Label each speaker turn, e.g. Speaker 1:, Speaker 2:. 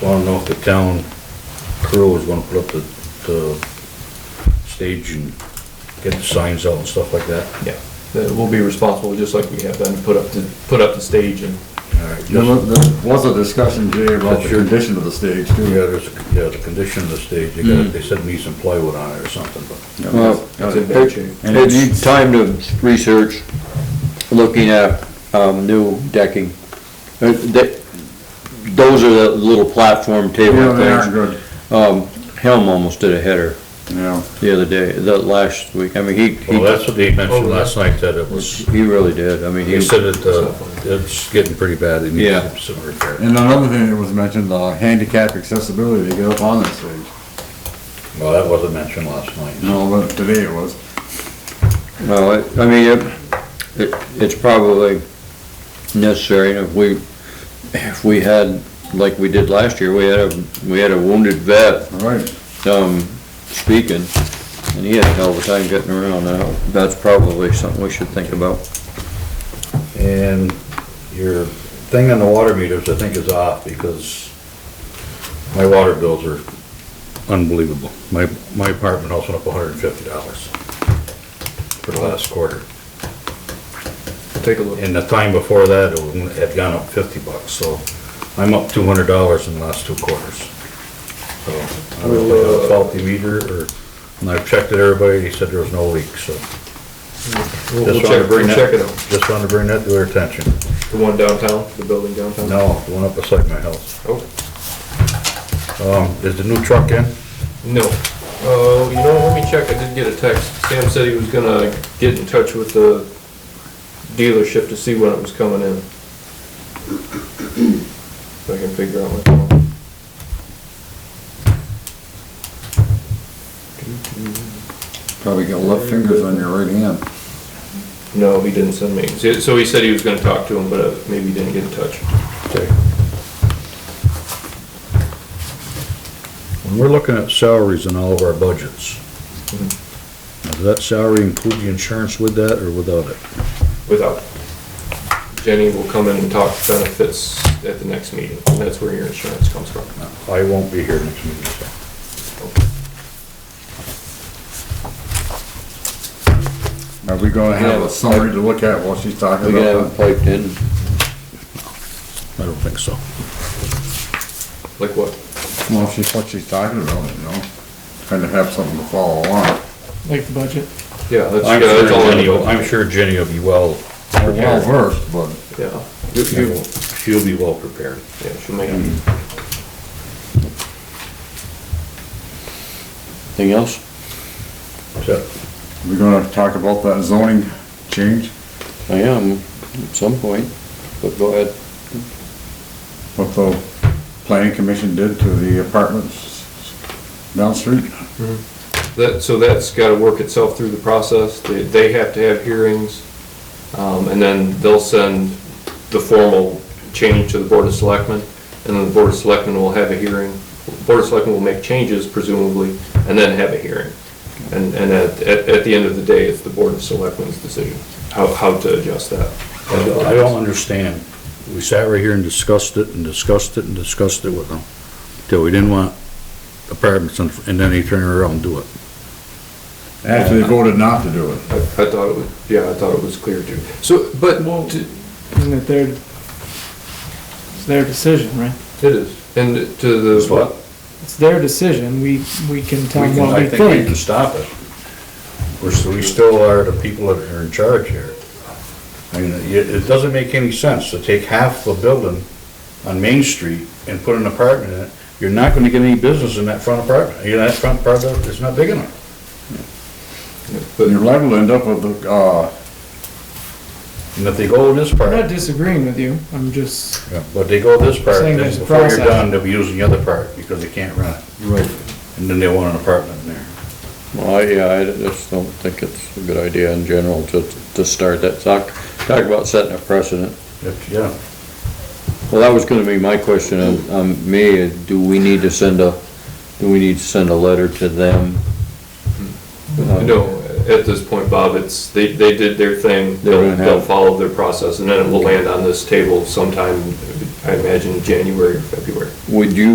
Speaker 1: don't know if the town crew is gonna put up the, the stage and get the signs out and stuff like that.
Speaker 2: Yeah, that we'll be responsible, just like we have done, to put up, to put up the stage and,
Speaker 1: All right,
Speaker 3: There
Speaker 1: Uh, just-
Speaker 3: was, there was a discussion, Jay, about the
Speaker 1: Sure.
Speaker 3: condition of the stage
Speaker 1: Yeah,
Speaker 3: too.
Speaker 1: there's, yeah, the condition of the stage, they
Speaker 2: Mm.
Speaker 1: got, they said need some plywood on it or something, but.
Speaker 4: Well,
Speaker 2: It's in bad shape.
Speaker 3: And it
Speaker 4: it's
Speaker 3: needs,
Speaker 4: time to research, looking at, um, new decking. Uh, that- Those are the little platform
Speaker 3: yeah,
Speaker 4: table
Speaker 3: they aren't
Speaker 4: things.
Speaker 3: good,
Speaker 4: Um, Helm almost did a header
Speaker 3: yeah.
Speaker 4: the other day, the last week. I mean, he, he,
Speaker 1: Well, that's what they mentioned
Speaker 2: Oh, yeah.
Speaker 1: last night, that it was,
Speaker 4: he really did. I mean, he,
Speaker 1: he said it, uh, it's getting pretty bad, it
Speaker 4: Yeah.
Speaker 1: needs some repair.
Speaker 3: And another thing that was mentioned, uh, handicap accessibility to get up on that stage.
Speaker 1: Well, that wasn't mentioned last night.
Speaker 3: No, but today it was.
Speaker 4: well, it- I mean, it, it, it's probably necessary. And If we, if we had, like we did last year, we had a, we had a wounded vet
Speaker 3: All right,
Speaker 4: um, speaking, and he had a hell of a time getting around. Now, that's probably something we should think about.
Speaker 1: And your thing on the water meters, I think, is off because my water bills are unbelievable. My, my apartment house went up hundred and fifty dollars for the last quarter.
Speaker 2: take a look.
Speaker 1: And the time before that, it had gone up fifty bucks, so I'm up two hundred dollars in the last two quarters. So, I don't know if I have a faulty meter or, and I've checked it, everybody, they said there was no leak, so.
Speaker 2: We'll we'll
Speaker 1: Just wanted to
Speaker 2: check, we'll
Speaker 1: bring
Speaker 2: check it out.
Speaker 1: that, just wanted to bring that to their attention.
Speaker 2: The one downtown, the building downtown?
Speaker 1: No, the one up beside my house.
Speaker 2: Oh,
Speaker 1: Um, is the new truck in?
Speaker 2: no. Uh, you know, let me check, I did get a text. Sam said he was gonna get in touch with the dealership to see when it was coming in. So I can figure out what.
Speaker 3: probably got left fingers on your right hand.
Speaker 2: No, he didn't send me. So- So he said he was gonna talk to him, but uh, maybe he didn't get in touch.
Speaker 1: Okay. When we're looking at salaries in all of our budgets,
Speaker 2: Mhm.
Speaker 1: now, does that salary include the insurance with that or without it?
Speaker 2: without. Jenny will come in and talk benefits at the next meeting, and that's where your insurance comes from.
Speaker 1: I won't be here next meeting, so.
Speaker 3: Are we gonna have
Speaker 4: Yeah.
Speaker 3: a summary to look at while she's talking
Speaker 4: We
Speaker 3: about
Speaker 4: can
Speaker 3: that?
Speaker 4: have it piped in.
Speaker 1: I don't think so.
Speaker 2: Like what?
Speaker 3: Well, she's what she's talking about, you know, kind of have something to follow along.
Speaker 5: like the budget.
Speaker 2: Yeah, that's, yeah,
Speaker 1: I'm
Speaker 2: that's all.
Speaker 1: sure
Speaker 2: I
Speaker 1: Jenny, will-
Speaker 2: know.
Speaker 1: I'm sure Jenny will be well,
Speaker 3: We're well versed, but
Speaker 2: Yeah,
Speaker 1: you- you- she'll be well prepared.
Speaker 2: yeah, she'll make it.
Speaker 4: Anything else?
Speaker 1: So,
Speaker 3: we're gonna talk about that zoning change.
Speaker 4: I am, at some point, but go ahead.
Speaker 3: what the planning commission did to the apartments down the street.
Speaker 2: That, so that's gotta work itself through the process, they, they have to have hearings, um, and then they'll send the formal change to the Board of Selectmen, and then the Board of Selectmen will have a hearing, Board of Selectmen will make changes presumably, and then have a hearing. And, and at, at, at the end of the day, it's the Board of Selectmen's decision, how, how to adjust that.
Speaker 1: I don't- I don't understand. We sat right here and discussed it and discussed it and discussed it with them, till we didn't want apartments, and and then they turn around and do it.
Speaker 3: After they voted not to do it.
Speaker 2: I, I thought it was, yeah, I thought it was clear too. So, but,
Speaker 5: Well,
Speaker 2: to-
Speaker 5: Isn't it their, it's their decision, right?
Speaker 2: it is, and to the.
Speaker 1: what?
Speaker 5: It's their decision, we, we can tell
Speaker 1: We
Speaker 5: them
Speaker 1: can,
Speaker 5: what
Speaker 1: I
Speaker 5: we
Speaker 1: think we can
Speaker 5: think.
Speaker 1: stop it. We're, s- we still are the people that are in charge here. I mean, it, it doesn't make any sense to take half a building on Main Street and put an apartment in it. You're not gonna get any business in that front apartment. You know, that front apartment is not big enough.
Speaker 3: But you're liable to end up with, uh,
Speaker 1: And if they go this
Speaker 5: I'm not
Speaker 1: part,
Speaker 5: disagreeing with you, I'm just,
Speaker 1: yeah, but they go this part,
Speaker 5: Saying
Speaker 1: then
Speaker 5: there's a
Speaker 1: before you're
Speaker 5: process.
Speaker 1: done, they'll be using the other part because they can't run it.
Speaker 3: Right.
Speaker 1: And then they want an apartment in there.
Speaker 4: Well, I- yeah, I just don't think it's a good idea in general to, to start that. Talk, talk about setting a precedent.
Speaker 1: That's- Yeah,
Speaker 4: Well, that was gonna be my question on, on me, do we need to send a, do we need to send a letter to them? Uh-huh.
Speaker 2: No, at this point, Bob, it's, they, they did their thing,
Speaker 4: They're
Speaker 2: they'll,
Speaker 4: gonna have-
Speaker 2: they'll follow their process, and then it will land on this table sometime, I imagine, January, or February.
Speaker 4: Would you